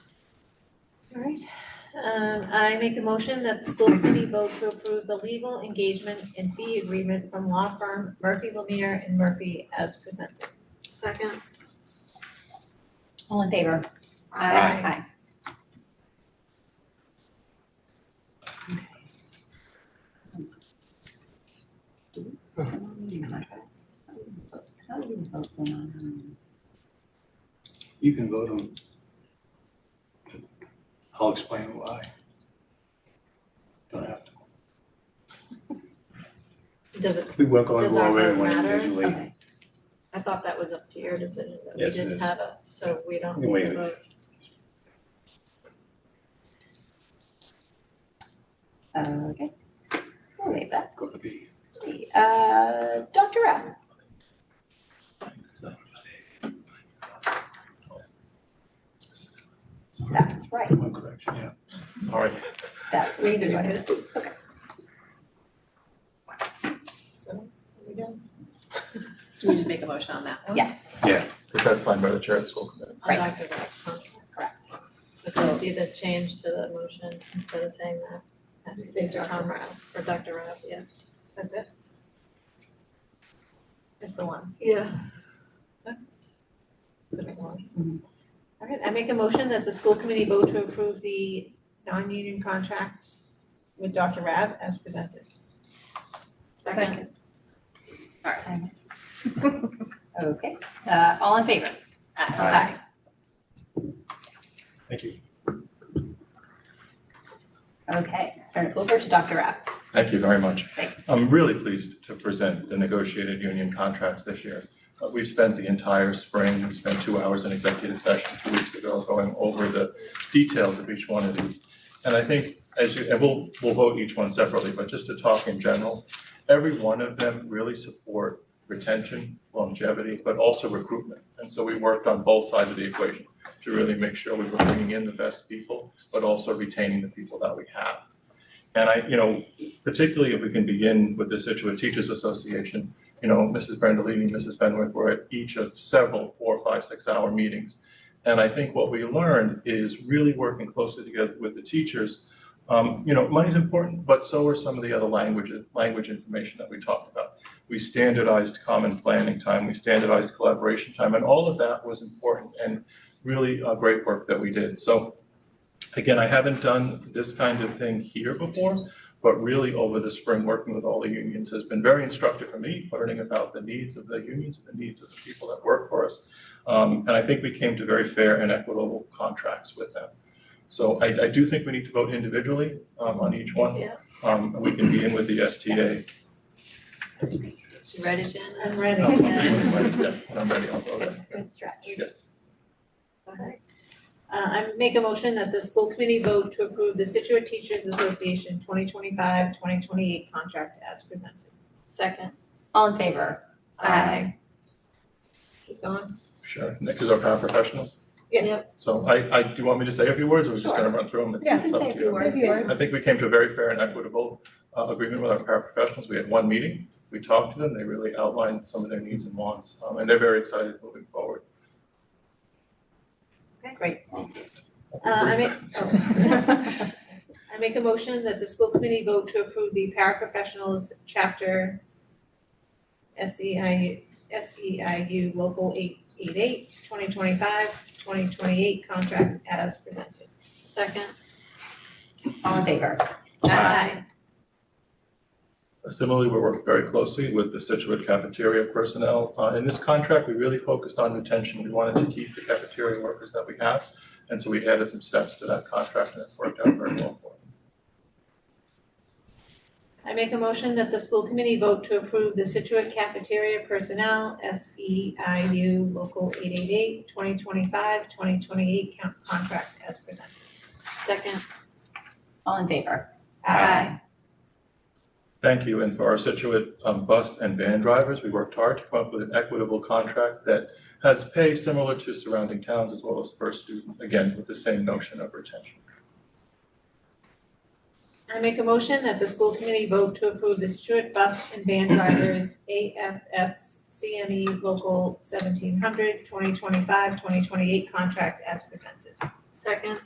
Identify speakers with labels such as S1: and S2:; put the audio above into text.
S1: All right, um, I make a motion that the school committee vote to approve the legal engagement and fee agreement from law firm Murphy Lemire and Murphy as presented.
S2: Second.
S3: All in favor?
S2: Aye.
S3: Aye. How do we vote when on,
S4: You can vote on. I'll explain why. Don't have to.
S1: Does it,
S4: We won't go
S1: Does
S4: over
S1: our vote
S4: everyone
S1: matter?
S4: individually.
S3: okay.
S1: I thought that was up to your decision, but we
S4: Yes, it
S1: didn't
S4: is.
S1: have a, so we don't
S4: You can waive it.
S1: vote.
S3: Okay. We'll leave that.
S4: Go to B.
S3: Uh, Dr. Rao? That's right.
S4: One correction, yeah. Sorry.
S3: That's maybe what it is. Okay.
S1: So, are we done?
S2: Can we just make a motion on that one?
S3: Yes.
S5: Because that's signed by the chair of the school committee.
S1: On
S3: Right.
S1: Dr. Rock's contract. So can you see the change to the motion instead of saying that? Has to say Dr. Conrad or Dr. Rob, yeah. That's it? It's the one.
S2: Yeah.
S1: Is it one?
S3: Mhm.
S1: All right, I make a motion that the school committee vote to approve the non-union contract with Dr. Rab as presented.
S2: Second.
S3: Okay, uh, all in favor?
S5: Aye. Thank you.
S3: Aye. Okay, turn it over to Dr. Rao.
S5: Thank you very much.
S3: Thank
S5: I'm really pleased to present the negotiated union contracts this year. Uh, We've spent the entire spring, we spent two hours in executive session two weeks ago going over the details of each one of these. And I think as you, and we'll, we'll vote each one separately, but just to talk in general, every one of them really support retention, longevity, but also recruitment. And so we worked on both sides of the equation to really make sure we were bringing in the best people, but also retaining the people that we have. And I, you know, particularly if we can begin with the Situate Teachers Association, you know, Mrs. Brandalini, Mrs. Fenwick were at each of several four, five, six-hour meetings. And I think what we learned is really working closely together with the teachers. Um, you know, money's important, but so are some of the other languages, language information that we talked about. We standardized common planning time, we standardized collaboration time, and all of that was important and really uh, great work that we did. So again, I haven't done this kind of thing here before, but really over the spring, working with all the unions has been very instructive for me, learning about the needs of the unions, the needs of the people that work for us. Um, and I think we came to very fair and equitable contracts with them. So I, I do think we need to vote individually, um, on each one.
S2: Yeah.
S5: Um, and we can begin with the STA.
S2: She ready, Jen?
S1: I'm ready.
S5: No, I'm ready. Yeah, When Um, I'm ready, I'll vote it.
S3: Good stretch.
S5: Yes.
S1: Okay. Uh, I make a motion that the school committee vote to approve the Situate Teachers Association 2025-2028 contract as presented.
S2: Second.
S3: All in favor? Aye.
S1: Keep going.
S5: Sure. Next is our paraprofessionals.
S1: Yeah.
S5: So I, I, do you want me to say a few words or just gonna run through them? It's-
S3: Yeah, you
S5: it's
S3: can
S5: up
S3: say a
S5: to
S3: few
S5: you.
S3: words.
S5: I think we came to a very fair and equitable uh, agreement with our paraprofessionals. We had one meeting. We talked to them. They really outlined some of their needs and wants, um, and they're very excited moving forward.
S1: Okay, great.
S5: I'll be
S1: Uh, I
S5: brief.
S1: make, oh. I make a motion that the school committee vote to approve the paraprofessionals chapter E SEIU, SEIU E Local 888, 2025, 2028 contract as presented.
S2: Second.
S3: All in favor?
S2: Aye.
S5: Uh, Similarly, we worked very closely with the Situate cafeteria personnel. Uh, In this contract, we really focused on retention. We wanted to keep the cafeteria workers that we have. And so we added some steps to that contract, and it's worked out very well for us.
S1: I make a motion that the school committee vote to approve the Situate cafeteria personnel SEIU Local 888, 2025, 2028 count- contract as presented.
S2: Second.
S3: All in favor?
S5: Thank you. And for our Situate um, bus and van drivers, we worked hard to come up with an equitable contract that has pay similar to surrounding towns as well as first student, again, with the same notion of retention.
S1: I make a motion that the school committee vote to approve the Situate bus and van drivers AFS CME Local 1700 2025-2028 contract as presented.
S2: Second.